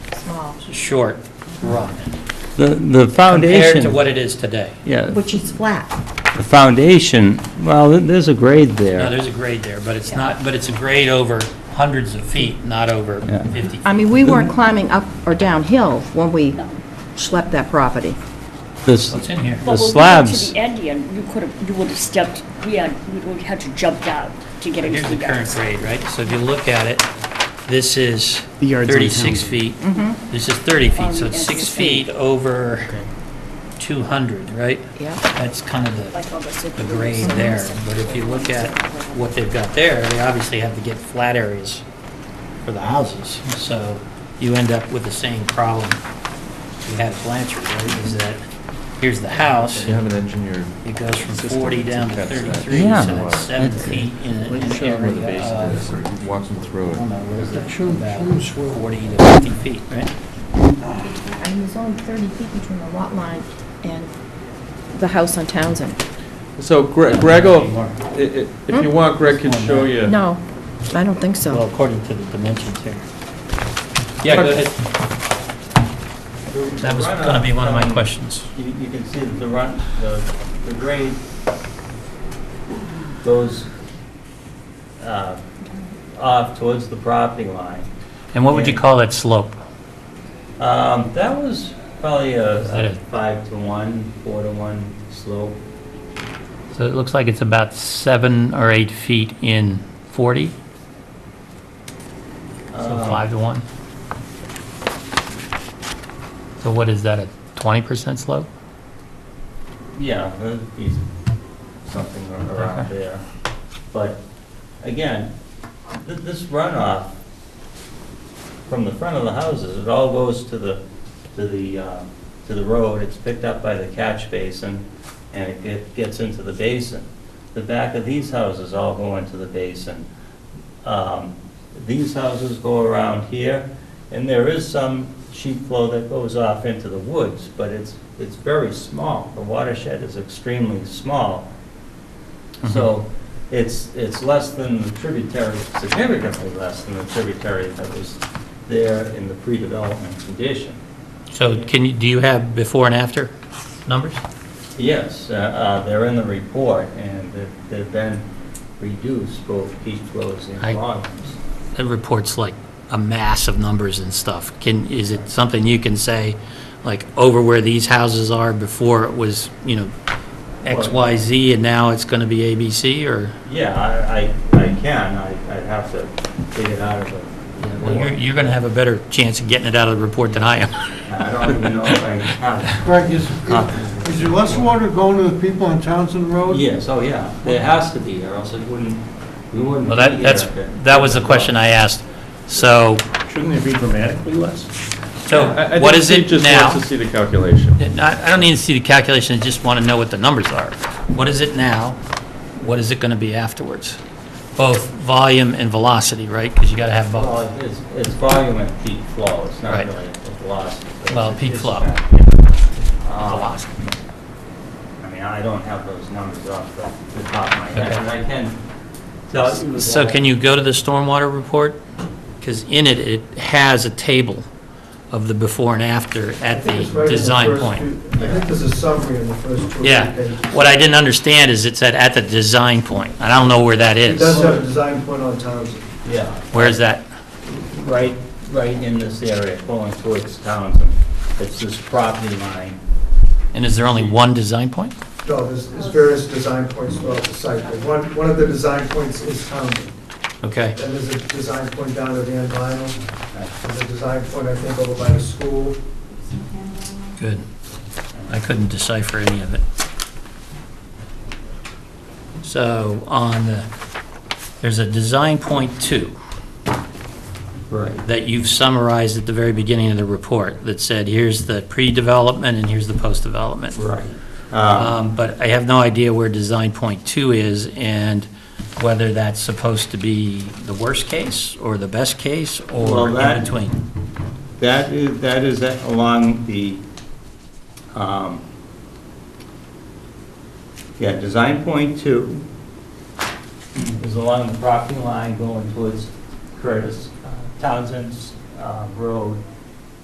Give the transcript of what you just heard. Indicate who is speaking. Speaker 1: short run
Speaker 2: The, the
Speaker 1: compared to
Speaker 2: foundation,
Speaker 1: what it is today.
Speaker 2: yeah,
Speaker 3: which is flat.
Speaker 2: the foundation, well, th- there's a grade
Speaker 1: Now,
Speaker 2: there.
Speaker 1: there's a grade there, but it's not, but it's a grade over hundreds of feet, not over
Speaker 2: Yeah.
Speaker 1: 50.
Speaker 3: I mean, we weren't climbing up or downhill when we schlepped that property.
Speaker 2: This,
Speaker 1: What's in here?
Speaker 2: The
Speaker 4: But when we got
Speaker 2: slabs-
Speaker 4: to the end, Ian, you could have, you would have stepped, we had, we would have had to jump down to get
Speaker 1: Here's
Speaker 4: into
Speaker 1: the
Speaker 4: the
Speaker 1: current
Speaker 4: yards.
Speaker 1: grade, right? So if you look at it, this is
Speaker 5: The yards on
Speaker 1: 36
Speaker 5: town.
Speaker 1: feet. This is 30 feet, so
Speaker 4: Um,
Speaker 1: it's
Speaker 4: it's
Speaker 1: six
Speaker 4: Mm-hmm. the same.
Speaker 1: feet over 200, right?
Speaker 3: Yeah.
Speaker 1: That's kind of the,
Speaker 4: Like all the super-
Speaker 1: the grade there. But if you look at what they've got there, they obviously have to get flat areas for the houses. So you end up with the same problem we had at Blanchard, right? Is that, here's the house,
Speaker 6: You have an engineered,
Speaker 1: it goes from
Speaker 6: System
Speaker 1: 40 down to
Speaker 6: to catch that.
Speaker 1: 33, so
Speaker 2: Yeah.
Speaker 1: that's seven
Speaker 2: That's-
Speaker 1: feet in a-
Speaker 6: you
Speaker 1: in an
Speaker 6: show them where the
Speaker 1: area
Speaker 6: basin
Speaker 1: of
Speaker 6: is, or you walk them through
Speaker 1: Uh, I don't know,
Speaker 6: it.
Speaker 1: what is that, about 40 to 50 feet, right?
Speaker 3: And there's only 30 feet between the lot line and the house on Townsend.
Speaker 6: So Gre- Greg, will- i- i- if you want, Greg can show you.
Speaker 3: No, I don't think
Speaker 1: Well,
Speaker 3: so.
Speaker 1: according to the dimensions here. Yeah, go ahead. That was going to be one of my questions.
Speaker 7: You you can see that the run, the the grade goes uh, off towards the property line.
Speaker 1: And what would you call that slope?
Speaker 7: Um, That was probably
Speaker 1: That
Speaker 7: a
Speaker 1: is-
Speaker 7: five to one, four to one slope.
Speaker 1: So it looks like it's about seven or eight feet in 40, so
Speaker 6: Uh,
Speaker 7: Um,
Speaker 1: five to one. So what is that, a 20% slope?
Speaker 7: Yeah, that'd be something ar- around there. But again, th- this runoff from the front of the houses, it all goes to the, to the, um, to the road. It's picked up by the catch basin and it get- gets into the basin. The back of these houses all go into the basin. Um, These houses go around here and there is some sheet flow that goes off into the woods, but it's, it's very small. The watershed is extremely small. So
Speaker 1: Mm-hmm.
Speaker 7: it's, it's less than the tributary, significantly less than the tributary that was there in the pre-development condition.
Speaker 1: So can you, do you have before and after numbers?
Speaker 7: Yes, uh, uh, they're in the report, and they've- they've been reduced, both peak flows
Speaker 1: I-
Speaker 7: and volumes.
Speaker 1: That report's like a mass of numbers and stuff. Can, is it something you can say, like, over where these houses are before it was, you know, X, Y, Z, and now it's going to be A, B, C, or?
Speaker 7: Yeah, I, I I can, I I'd have to dig it out of the
Speaker 1: Well, you're,
Speaker 7: report.
Speaker 1: you're going to have a better chance of getting it out of the report than I am.
Speaker 7: I don't even know if I have.
Speaker 8: Greg, is,
Speaker 7: copies.
Speaker 8: is there less water going to the people on Townsend Road?
Speaker 7: Yes, oh, yeah, there has to be, or else it wouldn't, we wouldn't.
Speaker 1: Well, that,
Speaker 7: be
Speaker 1: that's,
Speaker 7: here if it-
Speaker 1: that was the question I asked. So,
Speaker 5: Shouldn't it be dramatically less?
Speaker 1: so
Speaker 6: I- I think
Speaker 1: what is
Speaker 6: Steve
Speaker 1: it
Speaker 6: just
Speaker 1: now?
Speaker 6: wants to see the calculation.
Speaker 1: I, I don't need to see the calculation, I just want to know what the numbers are. What is it now? What is it going to be afterwards? Both volume and velocity, right? Because you got to have both.
Speaker 7: Well, it's, it's volume and peak flow, it's not
Speaker 1: Right.
Speaker 7: really a velocity. It's-
Speaker 1: Well, peak
Speaker 7: it's-
Speaker 1: flow.
Speaker 7: Uh, I mean, I don't have those numbers off the the top of my head,
Speaker 1: Okay.
Speaker 7: and I can tell you.
Speaker 1: So
Speaker 7: that-
Speaker 1: can you go to the stormwater report? Because in it, it has a table of the before and after at the design point.
Speaker 8: I think there's a summary in the first two
Speaker 1: Yeah. What I didn't understand is it said at the design point, and I don't know where that is.
Speaker 8: have a design point on Townsend.
Speaker 7: Yeah,
Speaker 1: Where is that?
Speaker 7: right, right in this area, going towards Townsend. It's this property line.
Speaker 1: And is there only one design point?
Speaker 8: No, there's, there's various design points throughout the site, but one, one of the design points is Townsend.
Speaker 1: Okay.
Speaker 8: Then there's a design point down at Van Vinyl, there's a design point, I think, over by the school.
Speaker 1: Good. I couldn't decipher any of it. So on the, there's a design point two. Right. That you've summarized at the very beginning of the report that said, here's the pre-development and here's the post-development.
Speaker 7: Right.
Speaker 1: Um, But I have no idea where design point two is and whether that's supposed to be the worst case or the best case
Speaker 7: Well,
Speaker 1: or
Speaker 7: that-
Speaker 1: in between.
Speaker 7: That is, that is along the, um, yeah, design point two is along the property line going towards Curtis uh, Townsend's uh, Road,